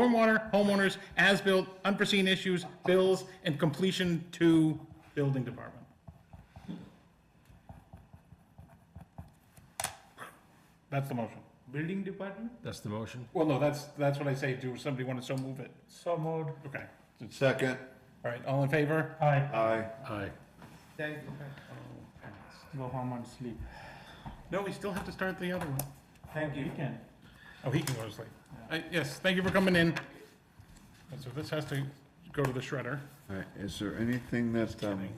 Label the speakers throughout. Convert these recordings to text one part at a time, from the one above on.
Speaker 1: stormwater, homeowners, as-built, unforeseen issues, bills, and completion to building department. That's the motion.
Speaker 2: Building department?
Speaker 3: That's the motion.
Speaker 1: Well, no, that's, that's what I say. Do somebody want to so move it?
Speaker 2: So moved.
Speaker 1: Okay.
Speaker 4: Second,
Speaker 1: All right, all in favor?
Speaker 2: Aye.
Speaker 4: aye.
Speaker 3: Aye.
Speaker 2: uh, Thank you. Oh, Go home and sleep.
Speaker 1: No, we still have to start the other one.
Speaker 2: Thank you. Weekend.
Speaker 1: Oh, he can go to sleep. Uh, Yes, thank you for coming in. And So this has to go to the shredder.
Speaker 4: All right, is there anything that, um,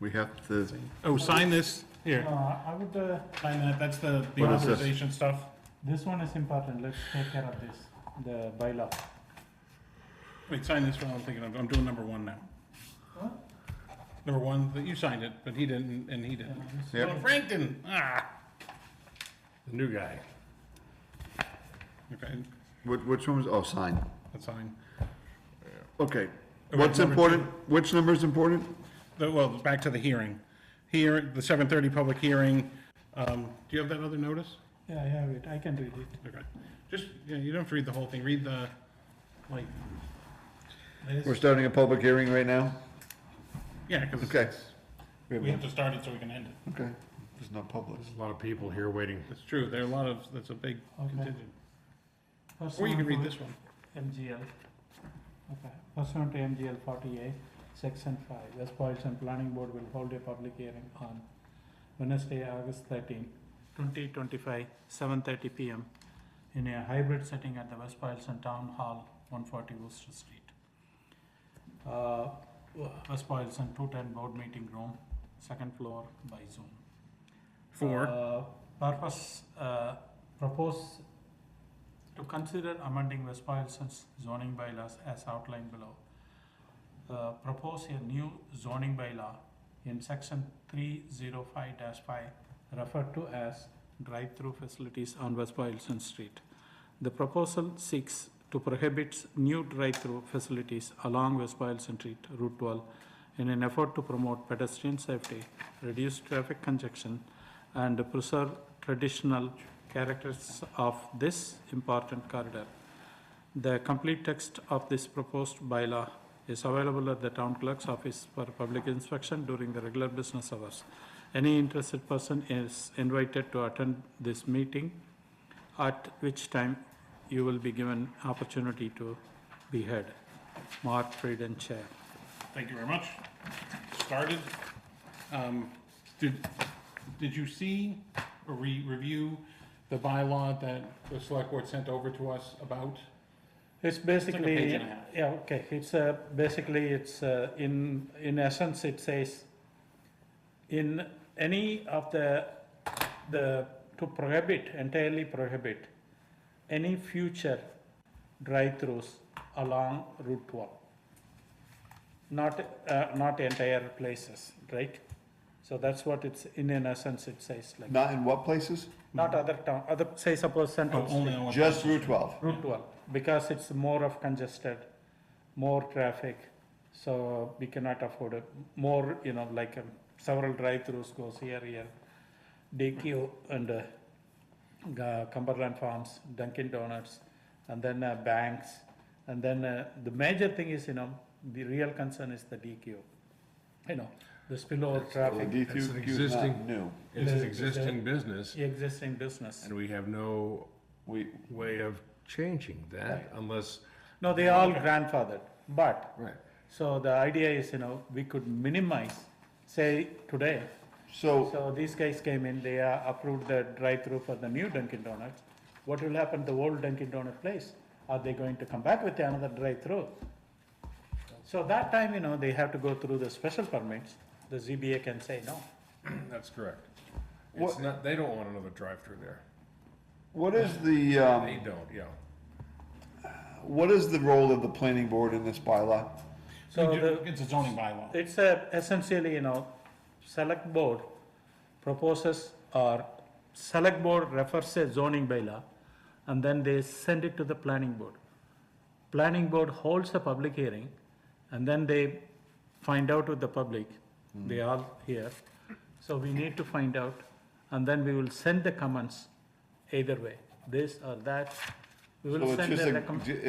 Speaker 4: we have to,
Speaker 1: Oh, sign this. Here,
Speaker 2: Uh, I would, uh,
Speaker 1: sign that. That's the the
Speaker 4: What is this?
Speaker 1: authorization stuff.
Speaker 2: this one is important, let's take care of this, the bylaw.
Speaker 1: Wait, sign this one, I'm thinking, of- I'm doing number one now.
Speaker 2: What?
Speaker 1: Number one, that you signed it, but he didn't, and he didn't.
Speaker 4: Yep.
Speaker 1: Well, Frank didn't, ah.
Speaker 3: The new guy.
Speaker 1: Okay,
Speaker 4: which, which one was, oh, sign.
Speaker 1: that's fine. Okay,
Speaker 4: Okay, what's
Speaker 1: number
Speaker 4: important, which number is important?
Speaker 1: The- Well, back to the hearing. Here, the seven thirty public hearing, um, do you have that other notice?
Speaker 2: Yeah, I have it, I can read it.
Speaker 1: Okay, just, you know, you don't have to read the whole thing, read the, like.
Speaker 4: We're starting a public hearing right now?
Speaker 1: Yeah, because
Speaker 4: Okay.
Speaker 1: we have to start it so we can end it.
Speaker 4: Okay, it's not public.
Speaker 3: There's a lot of people here waiting.
Speaker 1: That's true, there are a lot of, that's a big
Speaker 2: Okay.
Speaker 1: contingent.
Speaker 2: First
Speaker 1: Or you
Speaker 2: one
Speaker 1: can read
Speaker 2: to
Speaker 1: this one.
Speaker 2: MGL. Okay, pursuant to MGL forty-eight, section five, West Boylston Planning Board will hold a public hearing on Wednesday, August 13, 2025, seven thirty PM in a hybrid setting at the West Boylston Town Hall, one forty Worcester Street. Uh, West Boylston two-ten board meeting room, second floor by Zoom.
Speaker 1: Four,
Speaker 2: Uh, Purpose, uh, propose to consider amending West Boylston's zoning bylaws as outlined below. Uh, Propose a new zoning bylaw in section three zero five five referred to as drive-through facilities on West Boylston Street. The proposal seeks to prohibit new drive-through facilities along West Boylston Street, Route twelve, in an effort to promote pedestrian safety, reduce traffic congestion, and preserve traditional characters of this important corridor. The complete text of this proposed bylaw is available at the town clerk's office for public inspection during the regular business hours. Any interested person is invited to attend this meeting, at which time you will be given opportunity to be heard. Mark Frieden, Chair.
Speaker 1: thank you very much. Started. Um, Did, did you see or re- review the bylaw that the select board sent over to us about?
Speaker 2: It's
Speaker 1: like a
Speaker 2: basically,
Speaker 1: page and a half.
Speaker 2: yeah, okay, it's uh basically, it's uh in, in essence, it says, in any of the, the, to prohibit, entirely prohibit, any future drive-throughs along Route twelve. Not, uh, not entire places, right? So that's what it's, in an essence, it says like,
Speaker 4: Not in what places?
Speaker 2: not other town, other, say suppose Central
Speaker 1: Oh,
Speaker 2: Street.
Speaker 1: only on what-
Speaker 4: Just Route twelve.
Speaker 2: Route 12, because it's more of congested, more traffic, so we cannot afford it. More, you know, like um, several drive-throughs goes here, here, DQ and uh, Ga- Cumberland Farms, Dunkin' Donuts, and then uh, banks. And then uh, the major thing is, you know, the real concern is the DQ. You know, the spillover traffic,
Speaker 4: D
Speaker 3: That's an
Speaker 4: through Q is not
Speaker 3: existing-
Speaker 4: New.
Speaker 3: It's
Speaker 2: Is
Speaker 3: an
Speaker 2: it-
Speaker 3: existing business
Speaker 2: existing business.
Speaker 3: and we have no
Speaker 4: We,
Speaker 3: way of changing that unless,
Speaker 2: No, they all grandfathered, but
Speaker 4: right.
Speaker 2: So the idea is, you know, we could minimize, say, today.
Speaker 4: So,
Speaker 2: So these guys came in, they uh, approved the drive-through for the new Dunkin' Donuts. What will happen to the old Dunkin' Donut place? Are they going to come back with another drive-through? So that time, you know, they have to go through the special permits. The ZBA can say no.
Speaker 3: that's correct. It's
Speaker 4: What-
Speaker 3: not, they don't want another drive-through there.
Speaker 4: what is the,
Speaker 3: They
Speaker 4: um,
Speaker 3: don't, yeah.
Speaker 4: what is the role of the planning board in this bylaw?
Speaker 2: So
Speaker 1: You do-
Speaker 2: the,
Speaker 1: It's a zoning bylaw.
Speaker 2: it's a essentially, you know, select board proposes or select board refers a zoning bylaw and then they send it to the planning board. Planning board holds a public hearing and then they find out with the public, they are here. So we need to find out and then we will send the comments either way, this or that. We
Speaker 4: So
Speaker 2: will
Speaker 4: it's
Speaker 2: send
Speaker 4: just
Speaker 2: the
Speaker 4: a-
Speaker 2: recommend.